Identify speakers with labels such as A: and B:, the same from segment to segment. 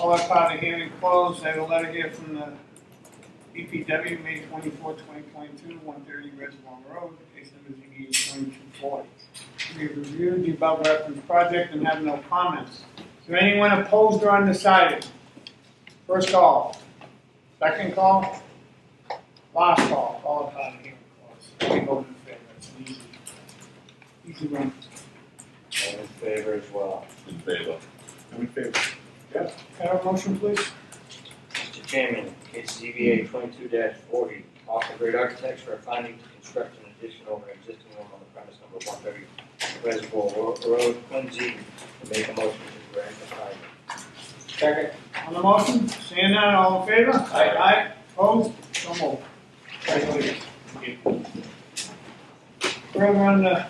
A: All that part of hearing closed, I have a letter here from the DPW, May twenty-fourth, twenty twenty-two, one thirty Reservoir Road, case number ZB twenty-two forty. We have reviewed the above referenced project and have no comments. Is there anyone opposed or undecided? First call, second call, last call, all that part of hearing closed. Let me go in favor, it's an easy, easy one.
B: All in favor as well.
C: In favor.
D: I'm in favor.
A: Can I have a motion, please?
B: Mr. Chairman, case ZBA twenty-two forty, Austin Great Architects for a finding to construct an addition over an existing home on the premise number one thirty Reservoir Ro- Road, Quincy. Make a motion to grant the finding.
A: Second. On the motion, seeing none, all in favor?
C: Aye.
A: Aye, opposed, so moved. Congratulations. We're on uh,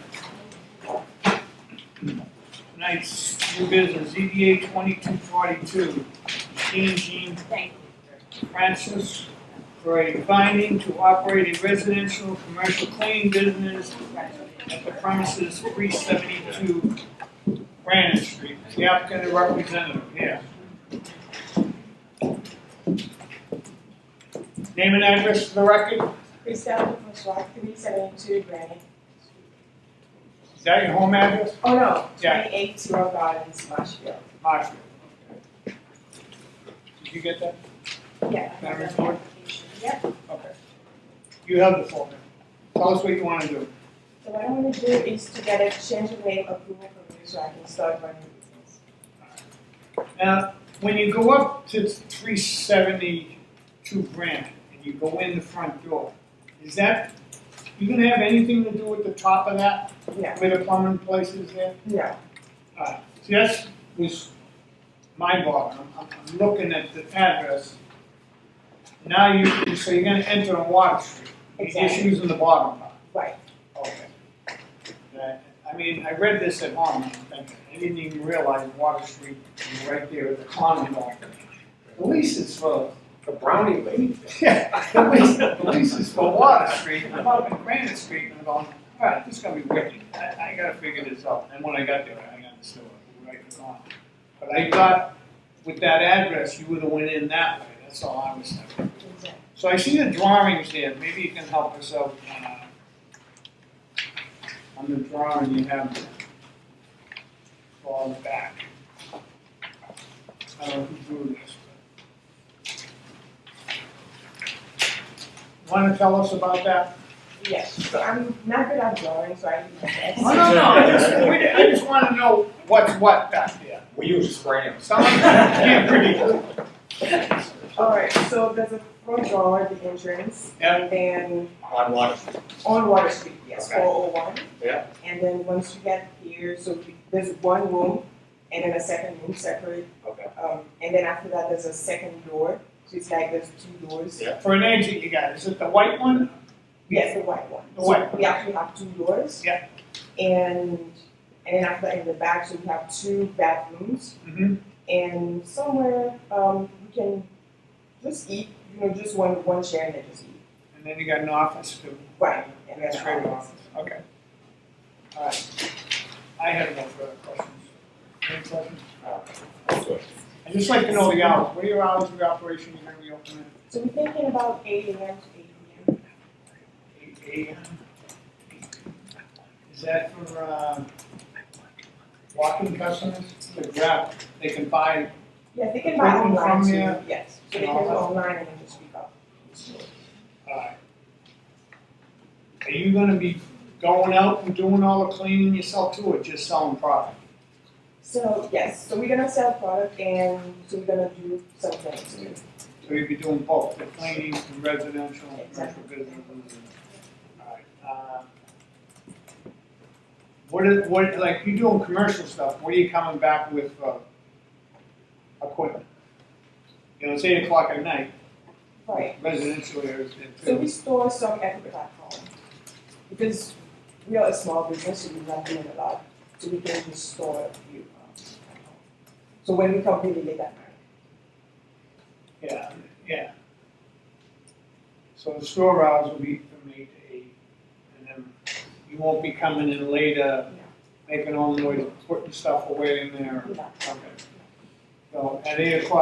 A: tonight's new business, ZBA twenty-two forty-two, Jean Jean
E: Thank
A: Francis for a finding to operate a residential commercial cleaning business at the premises three seventy-two Granite Street. Is The applicant and representative here. Name and address for the record.
E: Chriselle Francois, three seventy-two Granite.
A: Is that your home address?
E: Oh, no,
A: Yeah.
E: twenty-eight Zero Gardens, Marshfield.
A: Marshall. Did you get that?
E: Yeah.
A: Can I report?
E: Yeah,
A: Okay. You have the form. Tell us what you want to do.
E: so what I'm gonna do is to get a change of name approval from you so I can start running business.
A: Now, when you go up to three seventy-two Granite and you go in the front door, is that, you gonna have anything to do with the top of that,
E: No,
A: where the plumbing place is there?
E: no,
A: Alright, see, that's was my bother, I'm, I'm- I'm looking at the address. Now you, so you're gonna enter on Water Street, the
E: Exactly.
A: issues in the bottom part.
E: right,
A: Okay. That- I mean, I read this at home, and I'm thinking, I didn't even realize Water Street was right there at the common law. The lease is for,
D: A brownie lady.
A: yeah, the lease, the lease is for Water Street, and I'm up in Granite Street, and I'm going, alright, this is gonna be wicked, I, I gotta figure this out, and when I got there, I understood, it was right in the corner. But I thought, with that address, you would've went in that way, that's all I was thinking.
E: exactly.
A: So I see the drawings there, maybe you can help us out, uh, on the drawing you have for the back. I don't know who drew this, but. Wanna tell us about that?
E: Yes, so I'm not good at drawing, so I need my best.
A: No, no, no, I just, we, I just wanna know what's what back there.
D: We use Scram.
A: Someone can't predict.
E: Alright, so there's a front door, at the entrance,
A: Yeah.
E: and then
B: On Water Street.
E: On Water Street, yes,
B: Okay.
E: four oh one.
B: Yeah.
E: And then once you get here, so we- there's one room and then a second room separate,
B: Okay.
E: um, and then after that, there's a second door, so it's like there's two doors.
B: Yeah.
A: For an exit you got, is it the white one?
E: Yes, the white one.
A: The white
E: So We actually have two doors.
A: Yeah.
E: And, and then after that, in the back, so we have two bathrooms
A: Mm-hmm.
E: and somewhere, um, you can just eat, you know, just one, one chair and then just eat.
A: And then you got an office too.
E: Right, and then.
A: That's right, okay. All right, I have no further questions. Any questions? I'd just like to know the hours, what are your hours of operation, you're gonna be open
E: So we're thinking about eight AM to eight PM.
A: at eight AM? Is that for, uh, walking customers, the grab, they can buy,
E: Yes, they can buy
A: Right,
E: online
A: from
E: too,
A: here.
E: yes, so they can go online and then just pick up.
A: uh, are you gonna be going out and doing all the cleaning yourself too, or just selling product?
E: So, yes, so we're gonna sell product and so we're gonna do some things too.
A: So you'd be doing both, the cleaning and residential and commercial
E: Exactly.
A: businesses. Alright, uh, What is, what, like, you doing commercial stuff, what are you coming back with, uh, equipment? You know, it's eight o'clock at night,
E: Right,
A: residential areas, and
E: so we store some equipment at home. Because we are a small business, so we're not doing a lot, so we can just store a few um, at home. So when we come, really late at night.
A: yeah, yeah. So the store hours will be from eight to eight, and then you won't be coming in later, making all the noise, putting stuff away in there.
E: Yeah.
A: Okay. So at eight o'clock,